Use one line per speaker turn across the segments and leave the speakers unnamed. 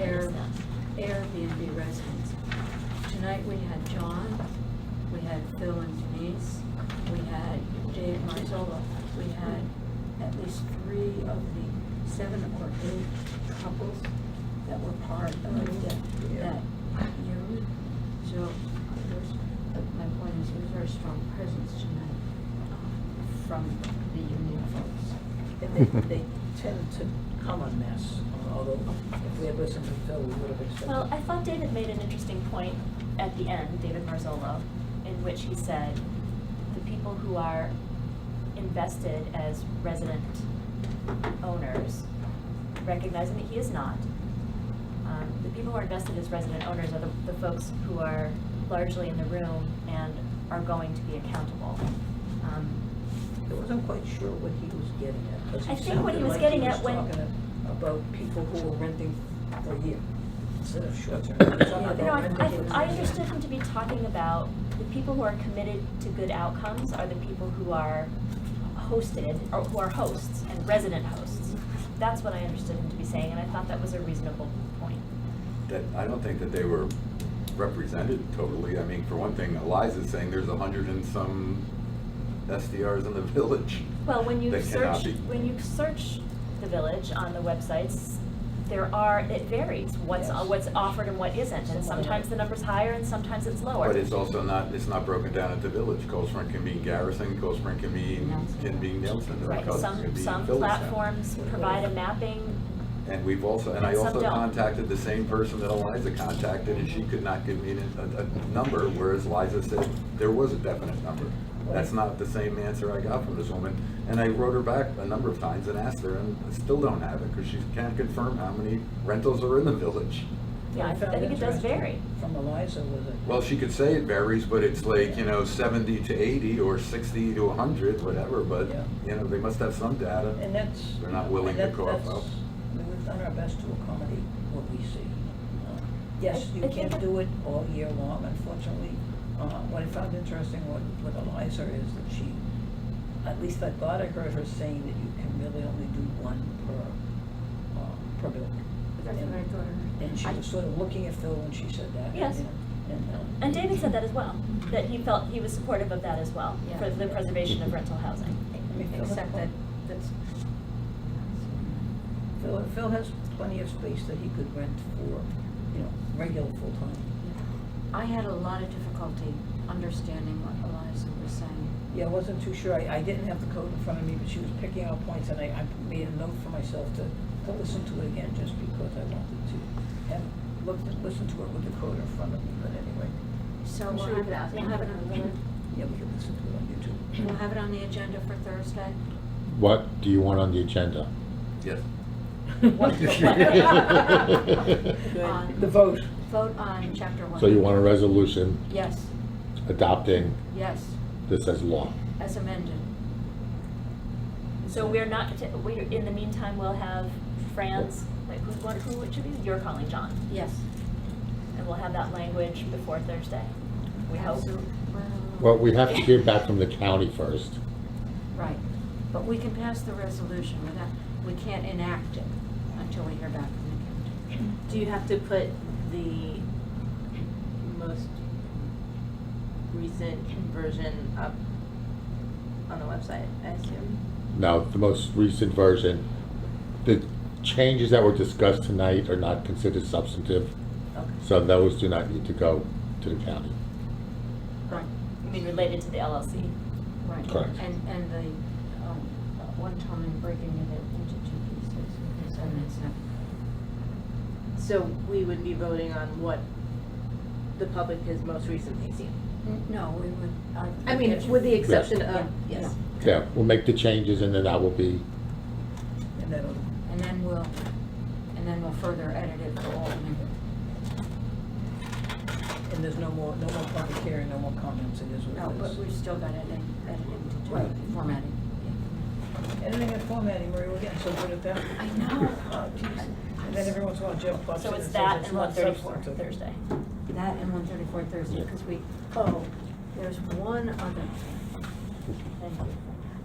Air- Airbnb residents. Tonight, we had John, we had Phil and Denise, we had Dave Marzola, we had at least three of the seven or eight couples that were part of the- that union. So there's, my point is, there's very strong presence tonight um, from the union folks.
And they, they tend to come en masse, although if we had listened to Phil, we would have expected.
Well, I thought David made an interesting point at the end, David Marzolo, in which he said, the people who are invested as resident owners, recognizing that he is not, um, the people who are invested as resident owners are the, the folks who are largely in the room and are going to be accountable. Um,
I wasn't quite sure what he was getting at, because
I
it
think what he
sounded
was
like
getting
he was
at when-
talking a- about people who were renting for a year instead of short term.
No, I, I, I understood him to be talking about the people who are committed to good outcomes are the people who are hosted, or who are hosts and resident hosts. That's what I understood him to be saying, and I thought that was a reasonable point.
that, I don't think that they were represented totally. I mean, for one thing, Eliza's saying there's a hundred and some SDRs in the village.
Well, when you
that cannot
search,
be-
when you search the village on the websites, there are, it varies what's,
Yes.
what's offered and what isn't, and sometimes the number's higher and sometimes it's lower.
But it's also not, it's not broken down at the village. Cold Spring can mean Garrison, Cold Spring can mean,
Nelson.
can mean Nelson, or
Right,
Cousins can
some,
mean
some
Village Center.
platforms provide a mapping,
And we've also, and I
and some
also
don't.
contacted the same person that Eliza contacted, and she could not give me a, a, a number, whereas Eliza said there was a definite number. That's not the same answer I got from this woman, and I wrote her back a number of times and asked her, and I still don't have it, because she can't confirm how many rentals are in the village.
yeah, I think it does vary.
From Eliza was it?
Well, she could say it varies, but it's like, you know, seventy to eighty, or sixty to hundred, whatever, but,
Yeah.
you know, they must have some data.
And that's.
They're not willing to
that-
go up,
that's-
up.
I mean, We've done our best to accommodate what we see. Uh, Yes,
I- I
you
think
can't
that-
do it all year long, unfortunately. Uh, What I found interesting with with Eliza is that she, at least I thought I heard her saying that you can really only do one per, uh, per building.
That's what I thought.
And she
I-
was sort of looking at Phil when she said that.
Yes.
and- and, uh,
And David said that as well, that he felt he was supportive of that as well,
Yeah.
for the preservation of rental housing.
Except that, that's.
Phil, Phil has plenty of space that he could rent for, you know, regular full-time.
I had a lot of difficulty understanding what Eliza was saying.
Yeah, I wasn't too sure. I, I didn't have the code in front of me, but she was picking out points, and I, I made a note for myself to, to listen to it again, just because I wanted to have, look, listen to it with the code in front of me, but anyway.
So
I'm
we'll
sure
have
we
it,
could
on-
ask
we'll
him.
have it on,
Yeah, we could listen to it on
the-
YouTube.
we'll have it on the agenda for Thursday.
What do you want on the agenda?
Yes.
On-
The vote.
Vote on chapter one.
So you want a resolution
Yes,
adopting
yes,
this as law?
as amended.
So we're not, t- we, in the meantime, we'll have Franz, like, who, what, who, it should be, you're calling John,
Yes.
and we'll have that language before Thursday, we hope.
Absolute-
Well, we have to hear back from the county first.
Right, but we can pass the resolution without, we can't enact it until we hear back from the county.
Do you have to put the most recent version up on the website, I assume?
Now, the most recent version, the changes that were discussed tonight are not considered substantive,
Okay.
so those do not need to go to the county.
Right,
I mean, related to the LLC.
right.
Correct.
And, and the, um, one time in breaking it into two pieces, so it's not.
So we would be voting on what the public has most recently seen?
N- No, we would.
I mean, with the exception
Yes.
of,
Yeah,
yes.
Yeah, we'll make the changes and then that will be,
And that'll,
And then we'll, and then we'll further edit it for all members.
and there's no more, no more public hearing, no more comments, it is
No,
what it
but
is.
we've still got editing, editing to
Right.
do, formatting.
Editing and formatting, Maria, we're getting so good at that.
I know.
Oh, geez. And then every once in a while Jeff pops in
So
and
it's
says
that and
not
one thirty-four
substantive.
Thursday.
That and one thirty-four Thursday, because we, oh, there's one other thing. Thank you.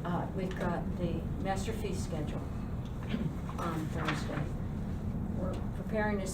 Uh, we've got the master fee schedule on Thursday. We're preparing to